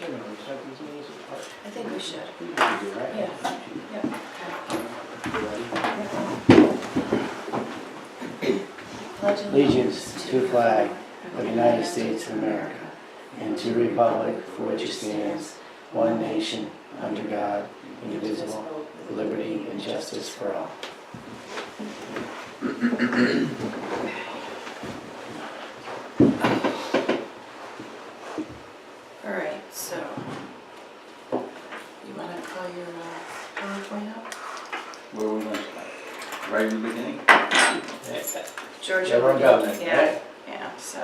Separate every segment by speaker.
Speaker 1: We're gonna recycle these meetings apart.
Speaker 2: I think we should.
Speaker 1: We can do that.
Speaker 2: Yeah. Yeah. Pledge
Speaker 1: Allegiance to the flag of the United States of America and to the republic for which it stands, one nation, under God, indivisible, with liberty and justice for all.
Speaker 2: All right, so you want to call your uh, PowerPoint up?
Speaker 3: Where we going? Right in the beginning?
Speaker 2: Georgia.
Speaker 1: Everyone got that?
Speaker 2: Yeah, yeah, so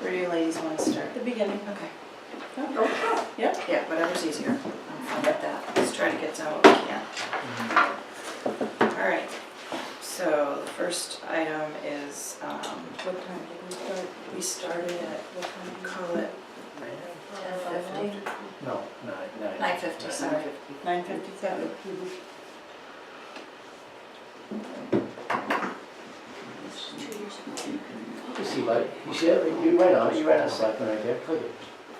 Speaker 2: where do you ladies want to start? The beginning. Okay. Yeah, yeah, whatever's easier. I'm fine with that. Let's try to get down what we can. All right, so the first item is, um,
Speaker 4: What time did we start?
Speaker 2: we started at,
Speaker 4: What time?
Speaker 2: call it
Speaker 4: Ten fifty?
Speaker 1: No, nine, nine.
Speaker 2: 9:50, sorry.
Speaker 4: Nine fifty-seven.
Speaker 1: You see, buddy, you see that, right- you right on, it. you right on selectmen right there, click it.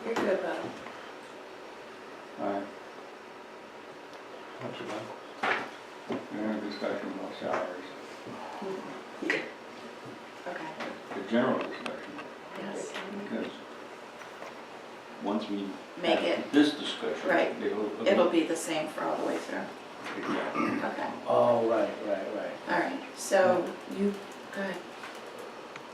Speaker 2: You're good, Bob.
Speaker 3: Alright,
Speaker 1: Don't you, bud?
Speaker 3: we're in discussion about salaries,
Speaker 2: Okay.
Speaker 3: the general discussion,
Speaker 2: Yes.
Speaker 3: because once we.
Speaker 2: Make
Speaker 3: have
Speaker 2: it-
Speaker 3: This discussion.
Speaker 2: right.
Speaker 3: it'll-
Speaker 2: It'll be the same for all the way through.
Speaker 3: Exactly.
Speaker 2: Okay,
Speaker 1: Oh, right, right, right.
Speaker 2: all right, so you, go ahead.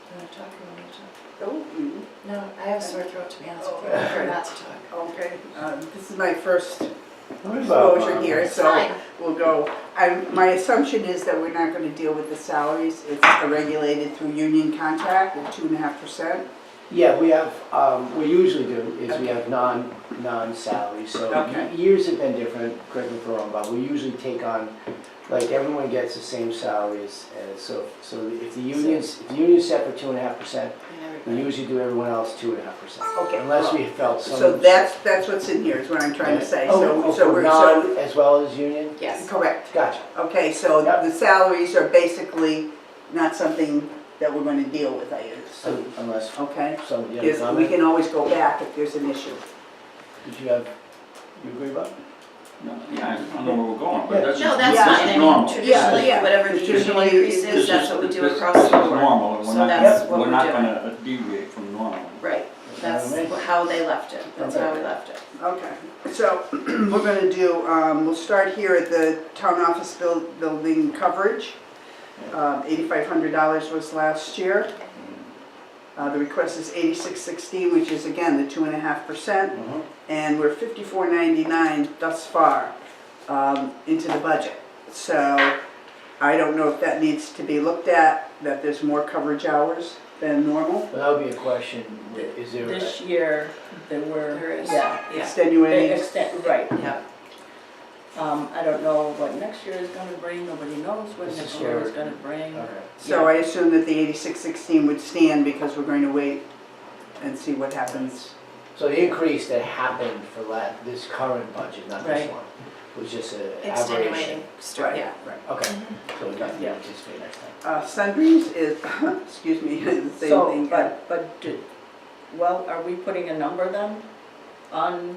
Speaker 2: You wanna talk or you wanna talk?
Speaker 4: Oh, mm,
Speaker 2: No, I have a sore throat, to be honest with you. I prefer not to talk.
Speaker 4: okay, um, this is my first
Speaker 1: What about,
Speaker 4: exposure
Speaker 1: um,
Speaker 4: here, so
Speaker 2: Fine.
Speaker 4: we'll go. I, my assumption is that we're not gonna deal with the salaries, it's regulated through union contract with two and a half percent.
Speaker 1: Yeah, we have, um, we usually do, is we have non, non-salary, so
Speaker 4: Okay.
Speaker 1: years have been different, correct me if I'm wrong, but we usually take on, like, everyone gets the same salaries, and so, so if the unions, if the union's set for two and a half percent,
Speaker 2: And
Speaker 1: we
Speaker 2: everybody-
Speaker 1: usually do everyone else two and a half percent.
Speaker 4: Okay.
Speaker 1: Unless we felt some.
Speaker 4: So that's, that's what's in here, is what I'm trying to say, so,
Speaker 1: Oh,
Speaker 4: so
Speaker 1: for
Speaker 4: we're, so,
Speaker 1: non as well as union?
Speaker 2: Yes,
Speaker 4: correct.
Speaker 1: Gotcha.
Speaker 4: Okay, so
Speaker 1: Yep.
Speaker 4: the salaries are basically not something that we're gonna deal with, I
Speaker 1: So
Speaker 4: assume,
Speaker 1: Unless,
Speaker 4: okay?
Speaker 1: so, you have a
Speaker 4: There's- We
Speaker 1: Um, comment?
Speaker 4: can always go back if there's an issue.
Speaker 1: Did you have, you agree about?
Speaker 3: No, Yeah, I don't know where we're going,
Speaker 1: Yeah.
Speaker 3: but that's.
Speaker 2: no,
Speaker 3: just-
Speaker 2: that's
Speaker 4: Yeah.
Speaker 3: this
Speaker 2: fine,
Speaker 3: is
Speaker 2: I mean,
Speaker 3: normal.
Speaker 4: Yeah,
Speaker 2: traditionally,
Speaker 4: yeah.
Speaker 2: whatever the usual
Speaker 4: Traditionally,
Speaker 2: increase
Speaker 4: this
Speaker 2: is,
Speaker 3: This
Speaker 2: that's
Speaker 3: is-
Speaker 2: what we do
Speaker 3: this-
Speaker 2: across the
Speaker 3: This is
Speaker 2: board.
Speaker 3: normal, and we're
Speaker 2: So that's
Speaker 3: not,
Speaker 2: what
Speaker 3: we're
Speaker 2: we're
Speaker 3: not
Speaker 2: doing.
Speaker 3: gonna deviate from normal.
Speaker 2: Right, that's
Speaker 1: Alright.
Speaker 2: how they left it, that's how we left it.
Speaker 4: Okay, so we're gonna do, um, we'll start here at the town office buil- building coverage. Um, eighty-five hundred dollars was last year. Uh, the request is eighty-six sixteen, which is again the two and a half percent,
Speaker 1: Mhm.
Speaker 4: and we're fifty-four ninety-nine thus far, um, into the budget. So I don't know if that needs to be looked at, that there's more coverage hours than normal,
Speaker 1: Well, that would be a question, is there? a-
Speaker 5: This year, there were.
Speaker 2: There is,
Speaker 5: Yeah.
Speaker 2: yeah,
Speaker 5: They
Speaker 4: extenuating.
Speaker 5: extend, right.
Speaker 2: yeah.
Speaker 5: Um, I don't know what next year is gonna bring, nobody knows what
Speaker 1: This
Speaker 5: next
Speaker 1: is
Speaker 5: year is
Speaker 1: your-
Speaker 5: gonna bring.
Speaker 1: Okay.
Speaker 4: So I assume that the eighty-six sixteen would stand because we're going to wait and see what happens.
Speaker 1: So the increase that happened for la this current budget, not this
Speaker 5: Right.
Speaker 1: one, was just an aberration.
Speaker 2: Extenuating story, Mm-hmm. yeah.
Speaker 1: Okay, so we got to
Speaker 5: Yeah.
Speaker 1: anticipate next time.
Speaker 4: Uh, sundries is, excuse me, the same
Speaker 5: So,
Speaker 4: thing.
Speaker 5: but, but, do- well, are we putting a number then on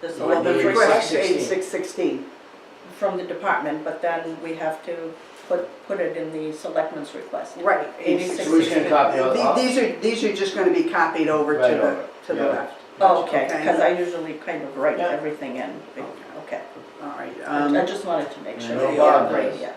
Speaker 5: this
Speaker 4: Well, the
Speaker 1: Eighty-six
Speaker 4: request,
Speaker 1: sixteen.
Speaker 4: eighty-six sixteen,
Speaker 5: from the department, but then we have to put, put it in the selectmen's request.
Speaker 4: right.
Speaker 5: Eighty-six.
Speaker 1: So we're just gonna copy all
Speaker 4: The-
Speaker 1: the.
Speaker 4: These are, these are just gonna be copied over
Speaker 1: Right
Speaker 4: to
Speaker 1: over,
Speaker 4: the, to the
Speaker 1: yeah.
Speaker 4: left.
Speaker 5: Oh, Okay,
Speaker 4: Okay.
Speaker 5: because I usually kind of write
Speaker 1: Yeah.
Speaker 5: everything in, okay.
Speaker 4: All right. um,
Speaker 5: I just wanted to make sure.
Speaker 1: No
Speaker 5: Yeah,
Speaker 1: problem.
Speaker 5: right, yeah.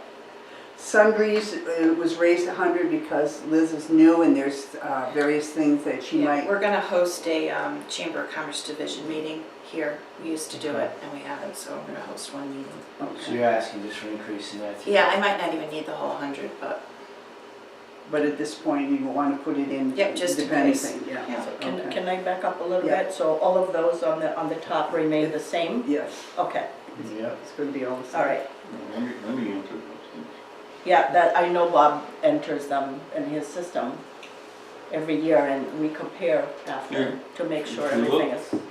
Speaker 4: Sundries uh, was raised a hundred because Liz is new and there's uh, various things that she
Speaker 2: Yeah,
Speaker 4: might,
Speaker 2: we're gonna host a um, Chamber of Commerce Division meeting here. We used to do it, and we haven't, so we're gonna host one meeting.
Speaker 1: So you're asking just for increase in that? too?
Speaker 2: Yeah, I might not even need the whole hundred, but,
Speaker 4: but at this point, you wanna put it in.
Speaker 2: Yep, just in
Speaker 4: depending,
Speaker 2: case.
Speaker 4: yeah.
Speaker 2: yeah.
Speaker 5: So Can,
Speaker 4: Okay.
Speaker 5: can I back up a little
Speaker 4: Yeah.
Speaker 5: bit? So all of those on the, on the top remain the same?
Speaker 4: Yes,
Speaker 5: Okay,
Speaker 1: Yeah.
Speaker 4: it's gonna be all the same.
Speaker 5: all right.
Speaker 3: Let me, let me answer those things.
Speaker 5: Yeah, that, I know Bob enters them in his system every year and we compare
Speaker 3: Yeah.
Speaker 5: after to make sure
Speaker 3: If you look-
Speaker 5: everything is